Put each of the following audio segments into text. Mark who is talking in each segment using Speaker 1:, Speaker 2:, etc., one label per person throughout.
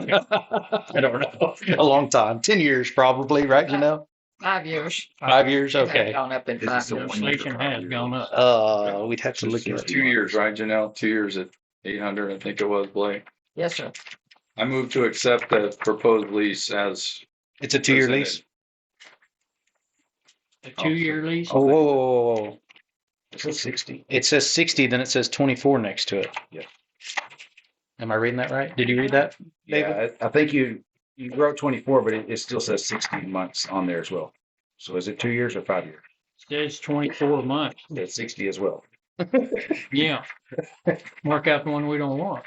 Speaker 1: I don't know. A long time, 10 years probably, right? You know,
Speaker 2: Five years.
Speaker 1: five years.
Speaker 2: They've
Speaker 1: Okay.
Speaker 2: Gone up in
Speaker 3: This
Speaker 2: five
Speaker 3: is a
Speaker 2: years.
Speaker 3: one-year
Speaker 4: Inflation has gone up.
Speaker 1: Uh, we'd have to look
Speaker 3: It's
Speaker 1: at
Speaker 3: two
Speaker 1: it.
Speaker 3: years, right, Janelle? Two years at eight hundred, I think it was, Blake.
Speaker 2: Yes, sir.
Speaker 3: I move to accept the proposed lease as.
Speaker 1: It's a two-year lease.
Speaker 4: A two-year lease?
Speaker 1: Oh, whoa, whoa, whoa, whoa, whoa. It says sixty. It says sixty, then it says twenty-four next to it.
Speaker 3: Yeah.
Speaker 1: Am I reading that right? Did you read that?
Speaker 5: Yeah, I I think you, you wrote twenty-four, but it, it still says sixteen months on there as well. So is it two years or five years?
Speaker 4: Says twenty-four months.
Speaker 5: It's sixty as well.
Speaker 4: Yeah. Mark out the one we don't want.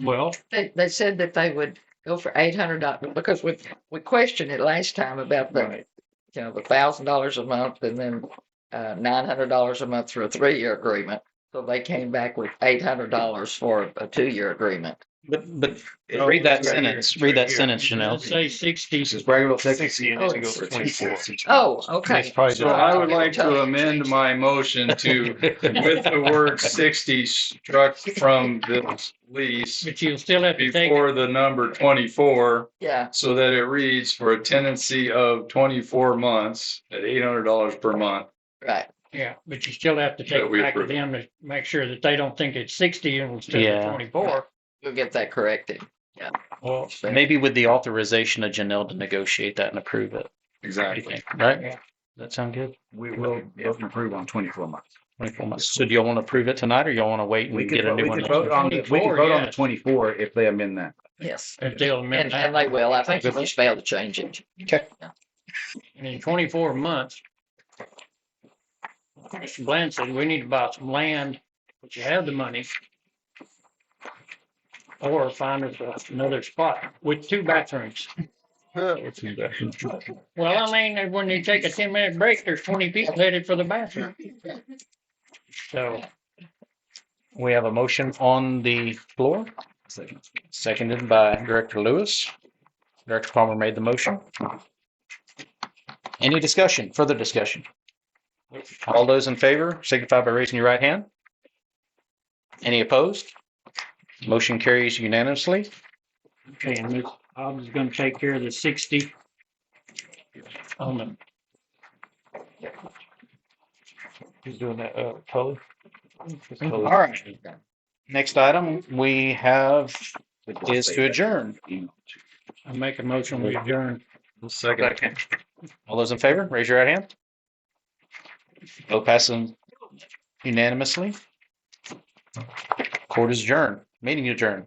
Speaker 4: Well,
Speaker 2: They, they said that they would go for eight hundred dollars because we, we questioned it last time about the, you know, the thousand dollars a month and then uh, nine hundred dollars a month for a three-year agreement. So they came back with eight hundred dollars for a two-year agreement.
Speaker 1: But, but
Speaker 5: No,
Speaker 1: read that
Speaker 5: it's oh, right here.
Speaker 1: sentence,
Speaker 5: It's
Speaker 1: read
Speaker 5: right
Speaker 1: that
Speaker 5: here.
Speaker 1: sentence,
Speaker 4: it'll
Speaker 1: Janelle.
Speaker 4: say sixty.
Speaker 5: This is Bragg Texas.
Speaker 2: Oh,
Speaker 5: to go for 24.
Speaker 2: Oh, okay.
Speaker 3: So I would like to amend my motion to, with the word sixty struck from this lease
Speaker 4: But you'll still have to take,
Speaker 3: before the number twenty-four,
Speaker 2: Yeah,
Speaker 3: so that it reads for a tenancy of twenty-four months at eight hundred dollars per month.
Speaker 2: right.
Speaker 4: yeah, but you still have to
Speaker 3: That
Speaker 4: take
Speaker 3: we
Speaker 4: it back to
Speaker 3: approve.
Speaker 4: them to make sure that they don't think it's sixty and it's
Speaker 1: Yeah.
Speaker 4: twenty-four.
Speaker 2: We'll get that corrected.
Speaker 4: Well,
Speaker 1: Maybe with the authorization of Janelle to negotiate that and approve it, What do you
Speaker 3: Exactly.
Speaker 1: think? right?
Speaker 4: Yeah.
Speaker 1: Does that sound good?
Speaker 5: We will vote and approve on twenty-four months.
Speaker 1: Twenty-four months. So do y'all want to approve it tonight or y'all want to wait
Speaker 5: We
Speaker 1: and
Speaker 5: could,
Speaker 1: get a
Speaker 5: vote- we
Speaker 1: new one?
Speaker 5: could vote on, the- we could
Speaker 4: 24,
Speaker 5: vote on the
Speaker 4: yes.
Speaker 5: twenty-four if they amend that.
Speaker 2: Yes.
Speaker 4: if they'll amend
Speaker 2: And, and
Speaker 4: that,
Speaker 2: they will. I think we just failed to change it.
Speaker 4: and in twenty-four months. Mr. Bland said, we need to buy some land, but you have the money. Or find us another spot with two bathrooms. Well, I mean, when you take a ten minute break, there's twenty people headed for the bathroom. So,
Speaker 1: We have a motion on the floor,
Speaker 5: Second.
Speaker 1: seconded by Director Lewis. Director Palmer made the motion. Any discussion, further discussion? All those in favor signify by raising your right hand. Any opposed? Motion carries unanimously.
Speaker 4: okay, and Ms. Hobbs is gonna take care of the sixty. On the.
Speaker 1: Who's doing that, uh, Tully? All right. Next item we have is to adjourn.
Speaker 4: I make a motion, we adjourn.
Speaker 3: Second.
Speaker 1: All those in favor, raise your right hand. Vote passes unanimously. Court is adjourned, meeting adjourned.